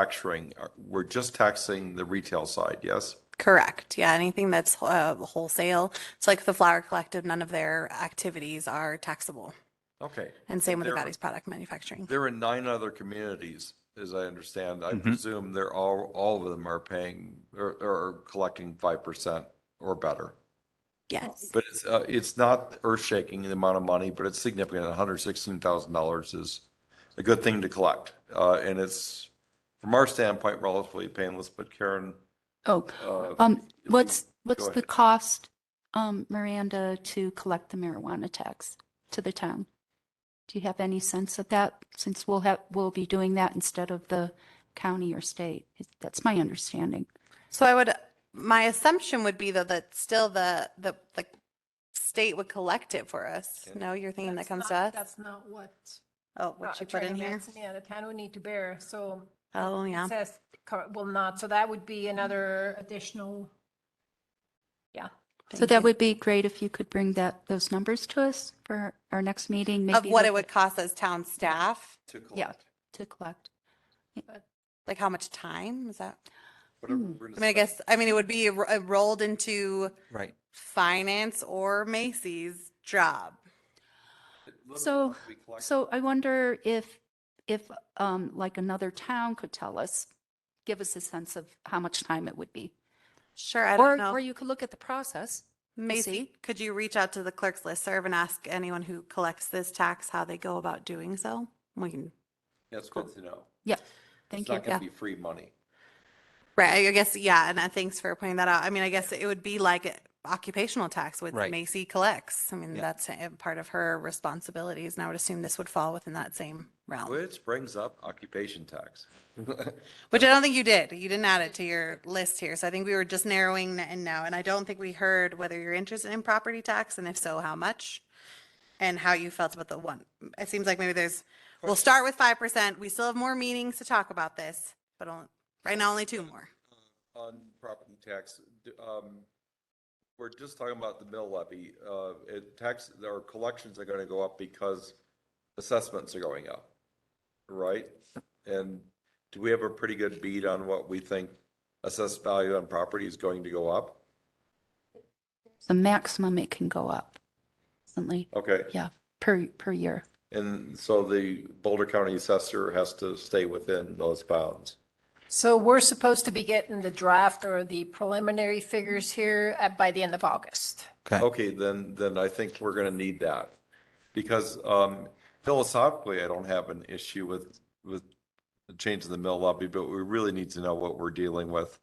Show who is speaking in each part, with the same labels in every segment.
Speaker 1: manufacturing, are- we're just taxing the retail side, yes?
Speaker 2: Correct. Yeah, anything that's uh, wholesale. It's like the Flower Collective, none of their activities are taxable.
Speaker 1: Okay.
Speaker 2: And same with the
Speaker 1: They're-
Speaker 2: Patty's Product Manufacturing.
Speaker 1: They're in nine other communities, as I understand. I
Speaker 3: Mhm.
Speaker 1: presume they're all, all of them are paying or, or collecting 5% or better.
Speaker 2: Yes.
Speaker 1: But it's, uh, it's not earth shaking, the amount of money, but it's significant. hundred sixteen thousand dollars is a good thing to collect. Uh, and it's, from our standpoint, relatively painless, but Karen,
Speaker 4: Oh,
Speaker 1: uh,
Speaker 4: um, what's, what's the
Speaker 1: ahead.
Speaker 4: cost, um, Miranda, to collect the marijuana tax to the town? Do you have any sense of that, since we'll have, we'll be doing that instead of the county or state? That's my understanding.
Speaker 2: So I would, my assumption would be though that still the, the, the state would collect it for us. No, you're thinking that
Speaker 5: That's
Speaker 2: comes to
Speaker 5: not-
Speaker 2: us?
Speaker 5: That's not what.
Speaker 2: Oh, what
Speaker 5: uh,
Speaker 2: you put
Speaker 5: Attorney
Speaker 2: in here?
Speaker 5: Matson, Yeah, the town would need to bear, so
Speaker 2: Oh, yeah.
Speaker 5: it says, cor- will not, so that would be another additional. Yeah,
Speaker 4: So
Speaker 2: Thank
Speaker 4: that
Speaker 2: you.
Speaker 4: would be great if you could bring that, those numbers to us for our next meeting, maybe.
Speaker 2: Of what it
Speaker 4: look
Speaker 2: would cost as town staff,
Speaker 1: to
Speaker 4: Yeah,
Speaker 1: collect.
Speaker 4: to collect.
Speaker 2: like how much time is that?
Speaker 1: whatever
Speaker 4: Hmm.
Speaker 1: we're gonna
Speaker 2: I mean, I
Speaker 1: spend.
Speaker 2: guess, I mean, it would be ro- uh, rolled into
Speaker 1: Right.
Speaker 2: finance or Macy's job.
Speaker 4: So- So I wonder if, if, um, like another town could tell us, give us a sense of how much time it would be.
Speaker 2: Sure, I
Speaker 4: Or,
Speaker 2: don't know.
Speaker 4: or you could look at the process.
Speaker 2: Macy,
Speaker 4: see.
Speaker 2: could you reach out to the clerk's list serve and ask anyone who collects this tax how they go about doing so? We can,
Speaker 1: That's good to know.
Speaker 4: Yeah, thank you.
Speaker 1: It's not gonna be free money.
Speaker 2: right, I guess, yeah, and uh, thanks for pointing that out. I mean, I guess it would be like uh, occupational tax, which
Speaker 6: Right.
Speaker 2: Macy collects. I mean,
Speaker 6: Yeah.
Speaker 2: that's uh, part of her responsibilities, and I would assume this would fall within that same realm,
Speaker 1: Which brings up occupation tax.
Speaker 2: which I don't think you did. You didn't add it to your list here, so I think we were just narrowing it in now, and I don't think we heard whether you're interested in property tax, and if so, how much? And how you felt about the one. It seems like maybe there's We'll start with five percent. We still have more meetings to talk about this, but on- right now only two more.
Speaker 1: on property tax, d- um, we're just talking about the mill levy, uh, it tax, our collections are gonna go up because assessments are going up, right? And do we have a pretty good beat on what we think assessed value on property is going to go up?
Speaker 4: The maximum it can go up, certainly,
Speaker 1: Okay,
Speaker 4: yeah, per, per year.
Speaker 1: and so the Boulder County assessor has to stay within those bounds.
Speaker 5: so we're supposed to be getting the draft or the preliminary figures here uh, by the end of August.
Speaker 6: Okay.
Speaker 1: Okay, then, then I think we're gonna need that. Because um, philosophically, I don't have an issue with, with the change in the mill levy, but we really need to know what we're dealing with.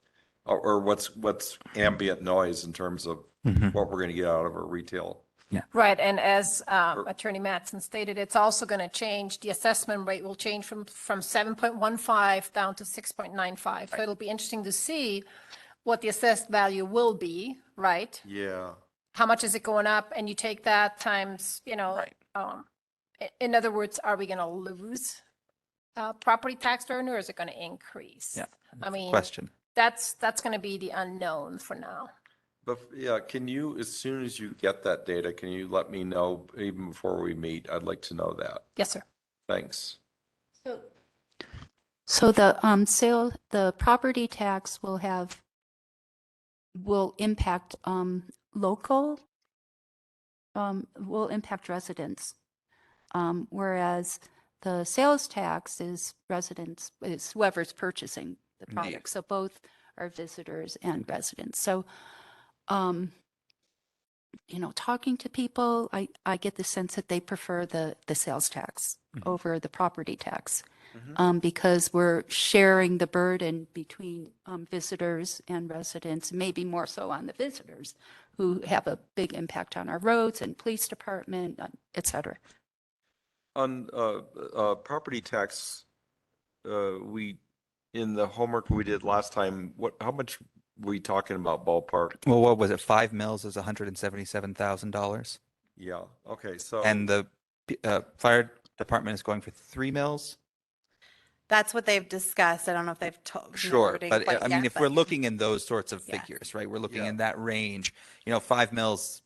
Speaker 1: Or, or what's, what's ambient noise in terms of
Speaker 6: Mhm.
Speaker 1: what we're gonna get out of our retail.
Speaker 5: Right, and as um,
Speaker 1: Or-
Speaker 5: Attorney Matson stated, it's also going to change, the assessment rate will change from, from 7.15 down to 6.95. So it'll be interesting to see what the assessed value will be, right?
Speaker 1: Yeah.
Speaker 5: How much is it going up? And you take that times, you know,
Speaker 6: Right.
Speaker 5: um, i- in other words, are we going to lose uh, property tax revenue or is it going to increase?
Speaker 6: Yeah,
Speaker 5: I mean,
Speaker 6: Question.
Speaker 5: that's, that's going to be the unknown for now.
Speaker 1: But yeah, can you, as soon as you get that data, can you let me know even before we meet? I'd like to know that.
Speaker 5: Yes, sir.
Speaker 1: Thanks.
Speaker 4: So the, um, sale, the property tax will have, will impact, um, local, um, will impact residents. Um, whereas the sales tax is residents, is whoever's purchasing the product. So both are visitors and residents. So, um, you know, talking to people, I, I get the sense that they prefer the, the sales tax
Speaker 6: Mhm.
Speaker 4: over the property tax
Speaker 1: Mhm.
Speaker 4: um, because we're sharing the burden between um, visitors and residents, maybe more so on the visitors who have a big impact on our roads and police department, uh, et cetera.
Speaker 1: On uh, uh, property tax, uh, we, in the homework we did last time, what, how much we talking about ballpark?
Speaker 6: Well, what was it? Five mills is hundred and seventy-seven thousand dollars,
Speaker 1: Yeah, okay, so.
Speaker 6: and the p- uh, fire department is going for three mills.
Speaker 2: That's what they've discussed. I don't know if they've told.
Speaker 6: Sure, but uh, I mean, if we're looking in those sorts of
Speaker 2: Yeah.
Speaker 6: figures, right? We're looking
Speaker 1: Yeah.
Speaker 6: in that range. You know, five mills.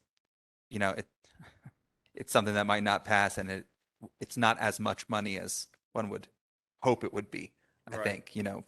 Speaker 6: You know, it it's something that might not pass, and it it's not as much money as one would hope it would be. I
Speaker 1: Right.
Speaker 6: think, you know,